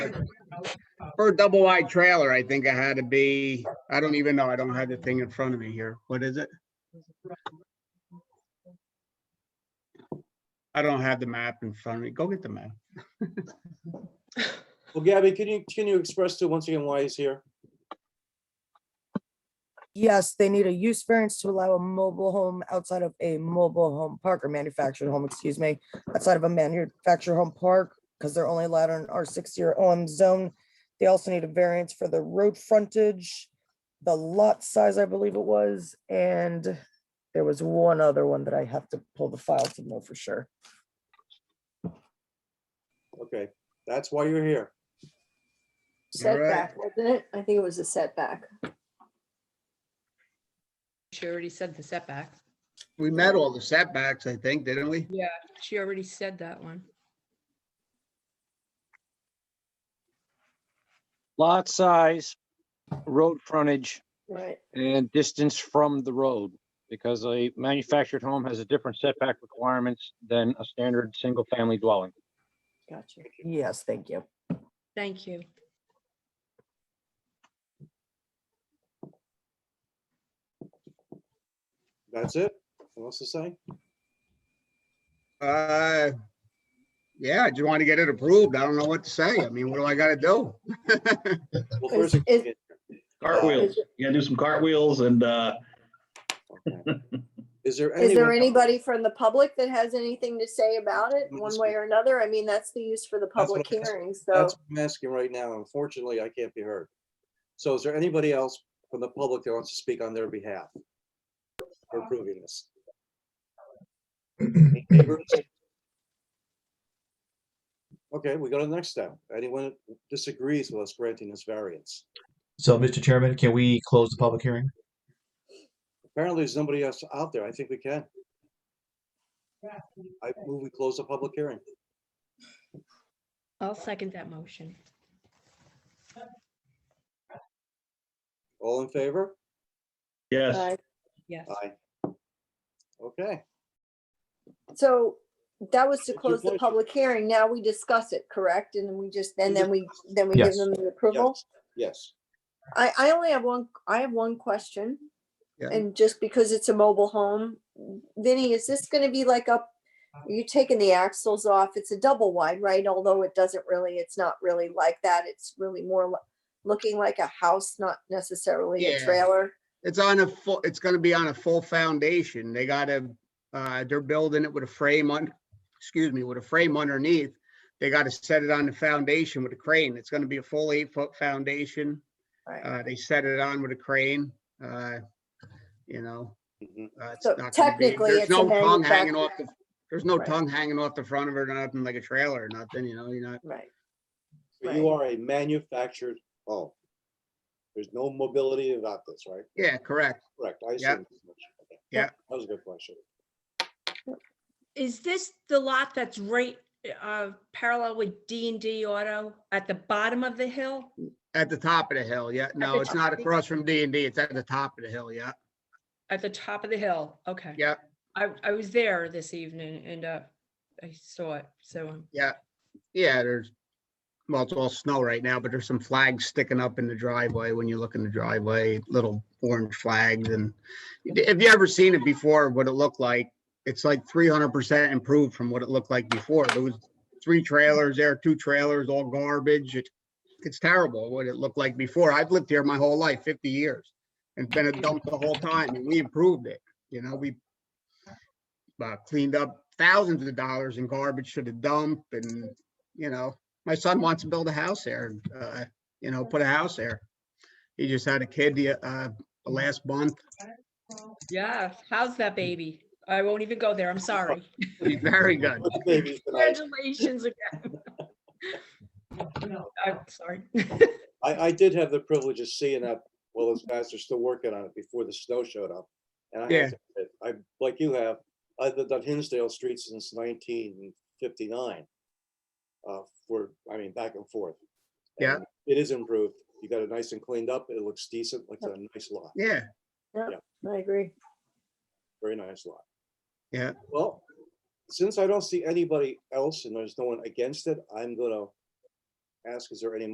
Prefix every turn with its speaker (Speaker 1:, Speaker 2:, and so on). Speaker 1: For a double wide trailer, I think it had to be, I don't even know, I don't have the thing in front of me here. What is it? I don't have the map in front of me. Go get the map.
Speaker 2: Well, Gabby, can you, can you express to once again why he's here?
Speaker 3: Yes, they need a use variance to allow a mobile home outside of a mobile home park or manufactured home, excuse me, outside of a manufactured home park, because they're only allowed in R sixty or OM zone. They also need a variance for the road frontage, the lot size, I believe it was, and there was one other one that I have to pull the file to know for sure.
Speaker 2: Okay, that's why you're here.
Speaker 4: Setback, wasn't it? I think it was a setback.
Speaker 5: She already said the setback.
Speaker 1: We met all the setbacks, I think, didn't we?
Speaker 5: Yeah. She already said that one.
Speaker 6: lot size, road frontage,
Speaker 4: Right.
Speaker 6: and distance from the road. Because a manufactured home has a different setback requirements than a standard single-family dwelling.
Speaker 4: Gotcha.
Speaker 3: Yes, thank you.
Speaker 5: Thank you.
Speaker 2: That's it? What else to say?
Speaker 1: Uh, yeah, I just want to get it approved. I don't know what to say. I mean, what do I gotta do?
Speaker 2: Well,
Speaker 4: Is-
Speaker 2: first,
Speaker 4: is-
Speaker 7: Cartwheels.
Speaker 4: Uh, Is it-
Speaker 7: You gotta do some cartwheels and, uh,
Speaker 2: is there anyone?
Speaker 4: Is there anybody from the public that has anything to say about it,
Speaker 2: Let me
Speaker 4: one
Speaker 2: see.
Speaker 4: way or another? I mean, that's the use for the
Speaker 2: what
Speaker 4: public
Speaker 2: I'm asking.
Speaker 4: hearings, so.
Speaker 2: That's what I'm asking right now. Unfortunately, I can't be heard. So is there anybody else from the public that wants to speak on their behalf? For approving this? Any neighbors? Okay, we go to the next step. Anyone disagrees with us granting this variance?
Speaker 8: So, Mr. Chairman, can we close the public hearing?
Speaker 2: Apparently, there's nobody else out there. I think we can. I move we close the public hearing.
Speaker 5: I'll second that motion.
Speaker 2: All in favor?
Speaker 7: yes.
Speaker 4: uh,
Speaker 5: Yes.
Speaker 2: Aye. Okay,
Speaker 4: So that was to
Speaker 2: It's your
Speaker 4: close the
Speaker 2: pleasure.
Speaker 4: public hearing. Now we discuss it, correct? And then we just, and then we, then we give
Speaker 8: Yes.
Speaker 4: them the approval?
Speaker 2: yes.
Speaker 4: I, I only have one, I have one question.
Speaker 1: Yeah.
Speaker 4: And just because it's a mobile home, Vinny, is this gonna be like up, you taking the axles off? It's a double wide, right? Although it doesn't really, it's not really like that. It's really more lo- looking like a house, not necessarily a
Speaker 1: Yeah.
Speaker 4: trailer.
Speaker 1: It's on a full, it's gonna be on a full foundation. They gotta, uh, they're building it with a frame on, excuse me, with a frame underneath. They gotta set it on the foundation with a crane. It's gonna be a full eight foot foundation.
Speaker 4: Right.
Speaker 1: Uh, they set it on with a crane, uh, you know.
Speaker 2: Mhm.
Speaker 1: uh, it's
Speaker 4: So
Speaker 1: not gonna be-
Speaker 4: technically,
Speaker 1: there's
Speaker 4: it's
Speaker 1: no
Speaker 4: a
Speaker 1: tongue hanging off the- There's no
Speaker 4: Right.
Speaker 1: tongue hanging off the front of it or nothing like a trailer or nothing, you know, you're not.
Speaker 4: Right.
Speaker 2: But You
Speaker 4: Right.
Speaker 2: are a manufactured home. There's no mobility about this, right?
Speaker 1: Yeah, correct.
Speaker 2: Correct. I
Speaker 1: Yeah.
Speaker 2: assume. as much. Okay.
Speaker 1: Yeah.
Speaker 2: That was a good question.
Speaker 5: Is this the lot that's right uh, parallel with D and D Auto at the bottom of the hill?
Speaker 1: At the top of the hill, yeah. No,
Speaker 5: the
Speaker 1: it's
Speaker 5: top.
Speaker 1: not across from D and D. It's at the top of the hill, yeah.
Speaker 5: At the top of the hill? Okay.
Speaker 1: Yep.
Speaker 5: I, I was there this evening and uh, I saw it. So um,
Speaker 1: Yeah, yeah, there's, well, it's all snow right now, but there's some flags sticking up in the driveway when you look in the driveway, little orange flags and if you ever seen it before, what it looked like, it's like three hundred percent improved from what it looked like before. There was three trailers there, two trailers, all garbage. It- It's terrible what it looked like before. I've lived here my whole life, fifty years. and It's been a dump the whole time and we improved it, you know, we uh, cleaned up thousands of dollars in garbage to the dump and, you know, my son wants to build a house there, uh, you know, put a house there. He just had a kid the, uh, last month.
Speaker 5: yeah, how's that baby? I won't even go there. I'm sorry.
Speaker 1: He's very good.
Speaker 2: Look at the babies tonight.
Speaker 5: Congratulations again. I'm sorry.
Speaker 2: I, I did have the privilege of seeing that while those guys are still working on it before the snow showed up. And I,
Speaker 1: Yeah.
Speaker 2: have to admit, I, like you have, I've lived on Hinsdale Street since nineteen fifty-nine. Uh, for, I mean, back and forth.
Speaker 1: Yeah.
Speaker 2: And It is improved. You got it nice and cleaned up. It looks decent, like a nice lot,
Speaker 1: Yeah,
Speaker 4: I agree.
Speaker 2: very nice lot.
Speaker 1: Yeah.
Speaker 2: Well, since I don't see anybody else and there's no one against it, I'm gonna ask, is there any